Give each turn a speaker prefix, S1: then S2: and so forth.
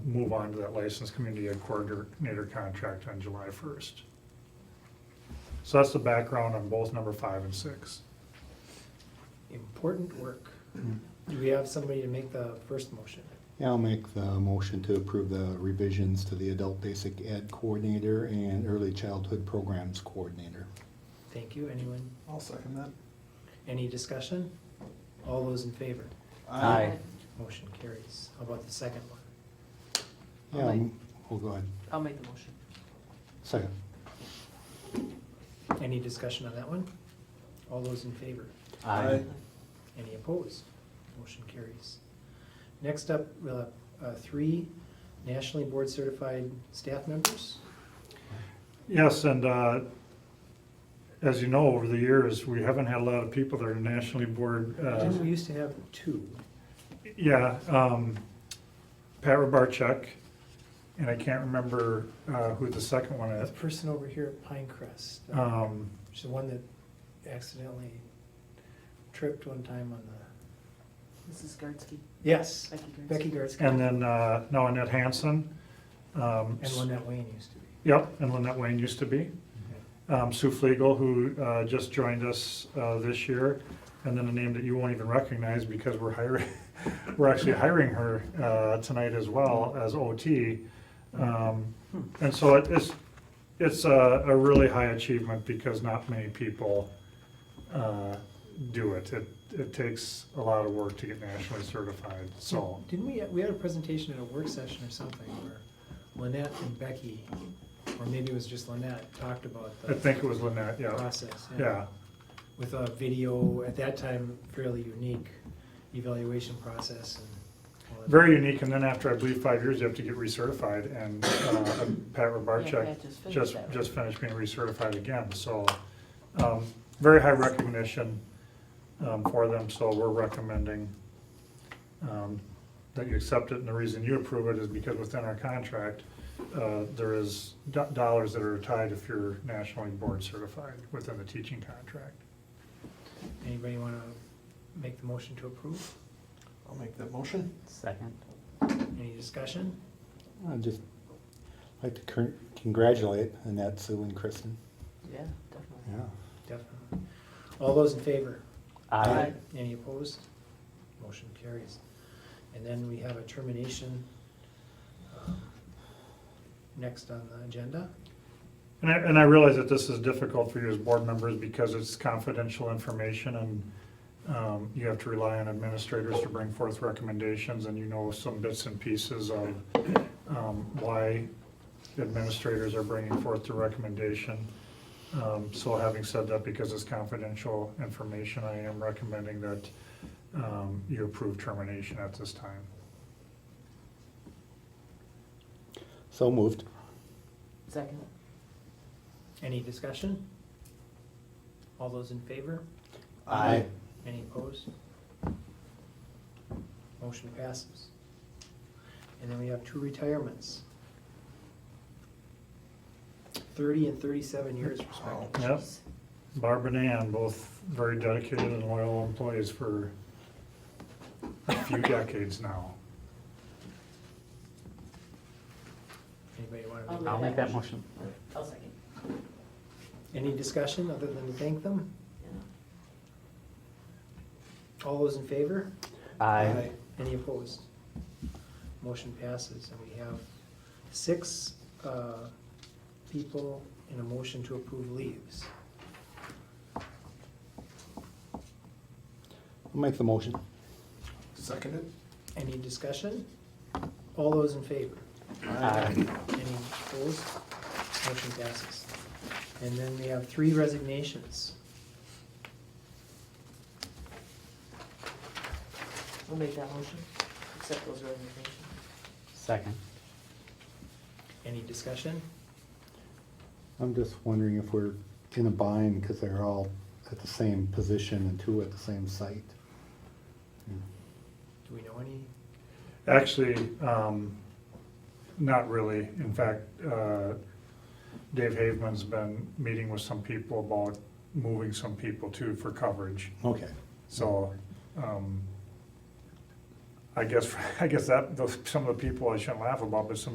S1: move on to that licensed community ed coordinator contract on July first. So that's the background on both number five and six.
S2: Important work. Do we have somebody to make the first motion?
S3: Yeah, I'll make the motion to approve the revisions to the Adult Basic Ed Coordinator and Early Childhood Programs Coordinator.
S2: Thank you. Anyone?
S4: I'll second that.
S2: Any discussion? All those in favor?
S5: Aye.
S2: Motion carries. How about the second one?
S3: Yeah, I'm- oh, go ahead.
S5: I'll make the motion.
S3: Second.
S2: Any discussion on that one? All those in favor?
S4: Aye.
S2: Any opposed? Motion carries. Next up, we'll have uh, three nationally board certified staff members.
S1: Yes, and uh, as you know, over the years, we haven't had a lot of people that are nationally board. uh,
S2: Didn't we used to have two?
S1: Yeah, um, Pat Robarchuk, and I can't remember, uh, who the second one
S2: The
S1: is.
S2: person over here at Pinecrest, uh,
S1: Um,
S2: she's the one that accidentally tripped one time on the,
S5: Mrs. Gardsky,
S2: yes,
S5: Becky Gardsky.
S2: Becky Gertzke.
S1: and then, uh, no, Annette Hanson. um,
S2: And Lynette Wayne used to be.
S1: Yep, and Lynette Wayne used to be. Um, Sue Flegel, who, uh, just joined us, uh, this year, and then a name that you won't even recognize because we're hiring, we're actually hiring her, uh, tonight as well as OT. Um, and so it- it's, it's a, a really high achievement because not many people, uh, do it. It, it takes a lot of work to get nationally certified, so.
S2: Didn't we, we had a presentation at a work session or something where Lynette and Becky, or maybe it was just Lynette, talked about
S1: I
S2: the
S1: think it was Lynette, yeah,
S2: process.
S1: yeah.
S2: With a video, at that time, fairly unique evaluation process and. all that.
S1: Very unique, and then after, I believe, five years, you have to get recertified, and uh, Pat
S5: Yeah,
S1: Robarchuk
S5: Pat just finished
S1: just,
S5: that one.
S1: just finished being recertified again, so, um, very high recognition um, for them, so we're recommending um, that you accept it, and the reason you approve it is because within our contract, uh, there is do- dollars that are tied if you're nationally board certified within the teaching contract.
S2: Anybody want to make the motion to approve?
S4: I'll make that motion.
S6: Second.
S2: Any discussion?
S3: I'd just like to cur- congratulate Annette, Sue, and Kristen.
S5: Yeah, definitely.
S3: Yeah.
S2: Definitely. All those in favor?
S3: Aye.
S2: Any opposed? Motion carries. And then we have a termination um, next on the agenda.
S1: And I, and I realize that this is difficult for you as board members because it's confidential information and um, you have to rely on administrators to bring forth recommendations and you know some bits and pieces of um, why administrators are bringing forth the recommendation. Um, So having said that, because it's confidential information, I am recommending that um, you approve termination at this time.
S3: So moved.
S5: Second.
S2: Any discussion? All those in favor?
S3: Aye.
S2: Any opposed? Motion passes. And then we have two retirements. Thirty and thirty-seven years respectively.
S1: Yep. Barb and Ann, both very dedicated and loyal employees for a few decades now.
S2: Anybody want to
S5: I'll
S2: make?
S6: I'll make that motion.
S5: I'll second.
S2: Any discussion other than to thank them?
S5: Yeah.
S2: All those in favor?
S6: Aye.
S2: Any opposed? Motion passes, and we have six uh, people in a motion to approve leaves.
S3: I'll make the motion.
S4: Second it.
S2: Any discussion? All those in favor?
S6: Aye.
S2: Any opposed? Motion passes. And then we have three resignations.
S5: I'll make that motion. Accept those resignations.
S6: Second.
S2: Any discussion?
S3: I'm just wondering if we're in a bind because they're all at the same position and two at the same site.
S2: Do we know any?
S1: Actually, um, not really. In fact, uh, Dave Haveman's been meeting with some people about moving some people too for coverage.
S3: Okay.
S1: So, um, I guess, I guess that, those, some of the people I shouldn't laugh about, but some